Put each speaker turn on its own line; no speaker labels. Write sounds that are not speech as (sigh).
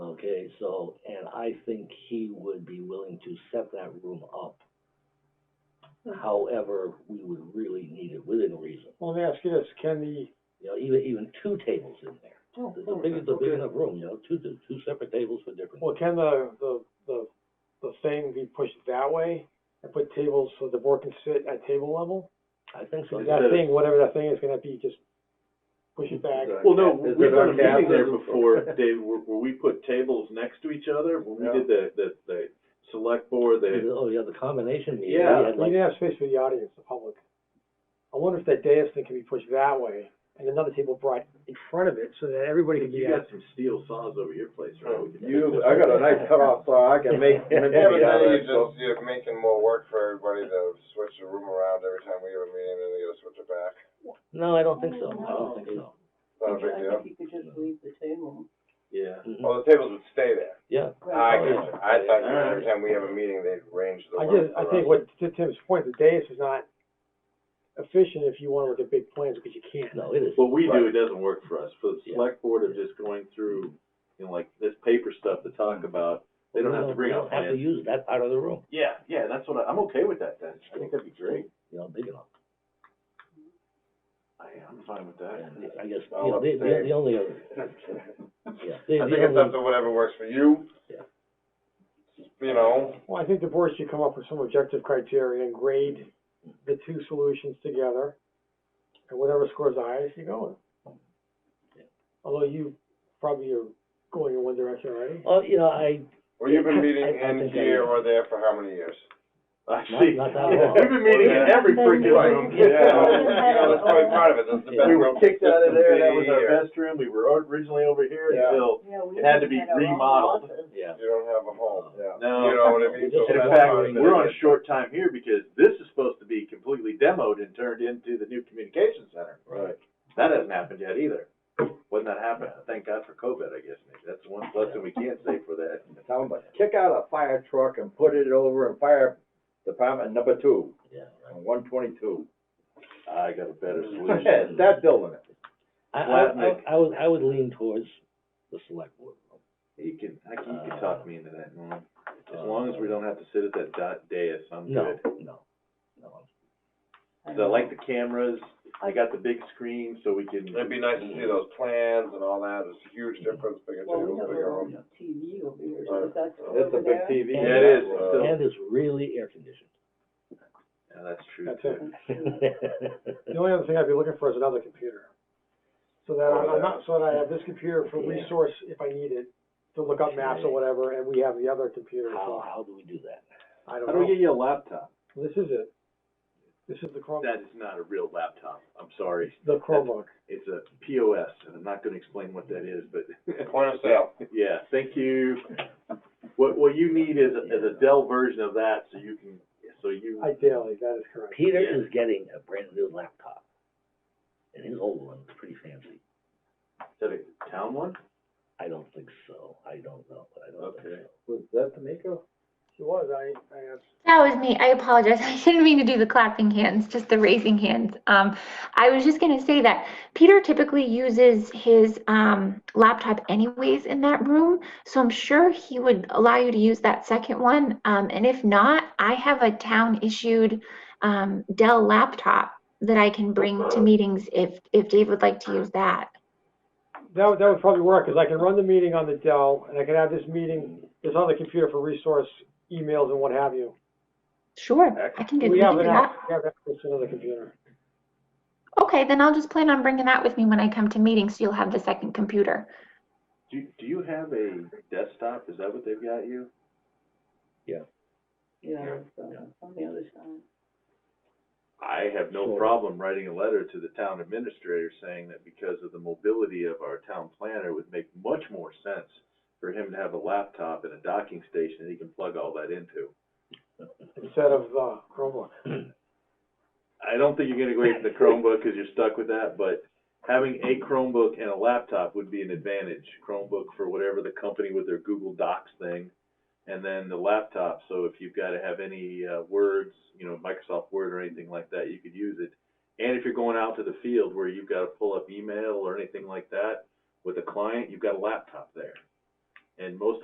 Okay, so, and I think he would be willing to set that room up.
Hmm.
However, we would really need it within reason,
Well, let me ask you this, can the,
you know, even, even two tables in there.
oh,
It's a big, it's a big
okay.
enough room, you know, two, two, two separate tables for different.
well, can the, the, the, the thing be pushed that way? And put tables so the board can sit at table level?
I think so.
Is
Instead
that
of-
thing, whatever that thing is gonna be, just push it back?
Well, no,
Is
we've
it
done a
our cab
meeting there
there?
before, Dave, where, where we put tables next to each other, when we did the, the, the select board, the,
Oh, yeah, the combination meeting.
Yeah,
we had
You
like-
didn't have space for the audience, the public. I wonder if that dais thing can be pushed that way, and another table brought in front of it, so that everybody can be
you
at.
got some steel saws over your place, right? We could-
You, I got a nice cutoff saw, I can make.
Yeah,
maybe
Yeah, but
out
then
of that,
you
so-
just, you're making more work for everybody to switch the room around every time we have a meeting, and then they gotta switch it back.
No, I don't think
Oh,
so, I don't think so.
Not a big deal.
you could just leave the table.
Yeah.
Mhm.
Well, the tables would stay there.
Yeah,
I
Oh,
get
yeah.
you. I thought you every time we have a meeting, they'd arrange the
I
work.
just, I
around
think what, to Tim's point, the dais is not efficient if you wanna look at big plans, because you can't.
no, it is.
What we do, it doesn't work for us, for the
Yeah.
select board of just going through, you know, like, this paper stuff to talk about, they don't have to bring
we
up
don't Have to
plans.
use that part of the room,
Yeah, yeah, that's what I, I'm okay with that then, I think that'd be great,
you know, big enough.
I, I'm fine with that. (laughs)
And I guess, you
I'll
know, the, the,
abstain.
the only other, yeah, the,
I think it's
the
up
only,
to whatever works for you.
Yeah.
You know,
Well, I think the board should come up with some objective criteria and grade the two solutions together, and whatever scores the highest, you go with. Although you probably are going in one direction already.
oh, you know, I,
well, you've been meeting
I- I
in
think I-
here or there for how many years?
I
Not-
see,
not that long.
we've been meeting in every freaking room. (laughs)
Yeah, you know, that's probably part of it, that's the best
We
room.
were kicked out of there, that was
Here.
our best room, we were originally over here
Yeah.
until,
Yeah, we
It had to be
had our own
remodeled.
office.
yeah,
You don't have a home, yeah.
No.
You know what I mean?
Just
So
and in
that's
fact,
how it
we're on
is.
short time here because this is supposed to be completely demoed and turned into the new communication center.
Right.
That hasn't happened yet either. When that happened, thank God for COVID, I guess, maybe, that's the one blessing we can't say for that.
Tell them, but kick out a fire truck and put it over in fire department number two,
yeah.
on one twenty-two.
I got a (laughs) better
(laughs)
solution.
That building,
I, I,
Flat
I,
Nick.
I would, I would lean towards the select board.
You can, I can, you can talk me into that, Norm. As long as we don't have to sit at that dot dais, I'm
No,
good.
no, no.
Cause I like the cameras, I got the big screen so we can.
It'd be nice to see those plans and all that, it's a huge difference, bigger
Well, we
table,
have
bigger
our
room.
own TV over
Right.
here, so is that over there?
it's a big TV.
Yeah, it is.
Uh,
So-
And it's really air conditioned.
Yeah, that's true.
That's
too.
it. The only other thing I'd be looking for is another computer. So that I- I'm not, so that I have this computer for resource if I need it, to look up maps or whatever, and we have the other computer,
How,
so
how do we do that?
I
How
don't
do we
know.
get you a laptop?
This is it. This is the Chrome,
That is not a real laptop, I'm sorry.
the Chromebook.
It's a POS, and I'm not gonna explain what that is, but, (laughs)
Point of sale.
yeah, thank you. What, what you need is, a- is a Dell version of that, so you can, so you,
Ideally, that is correct.
Peter is getting a brand new laptop. And his old one was pretty fancy.
is that a town one?
I don't think so. I don't know, but I don't think
Okay.
was that D'Amico?
She was, I, I asked.
That was me. I apologize. (laughs) I didn't mean to do the clapping hands, just the raising hands. Um, I was just going to say that Peter typically uses his um, laptop anyways in that room. So I'm sure he would allow you to use that second one. Um, and if not, I have a town issued um, Dell laptop that I can bring to meetings if, if Dave would like to use that.
That would, that would probably work, because I can run the meeting on the Dell, and I can have this meeting, this other computer for resource emails and what have you.
Sure, I can do,
We
we
have
can do
an,
that.
app- we have access to another computer.
Okay, then I'll just plan on bringing that with me when I come to meetings. So you'll have the second computer.
Do, do you have a desktop? Is that what they've got you?
Yeah, so, on the other side.
I have no
Sure.
problem writing a letter to the town administrator saying that because of the mobility of our town planner, it would make much more sense for him to have a laptop and a docking station that he can plug all that into.
Instead of, uh, Chromebook.
I don't think you're gonna go get the Chromebook because you're stuck with that, but having a Chromebook and a laptop would be an advantage. Chromebook for whatever the company with their Google Docs thing, and then the laptop, so if you've gotta have any, uh, words, you know, Microsoft Word or anything like that, you could use it. And if you're going out to the field where you've gotta pull up email or anything like that with a client, you've got a laptop there. And most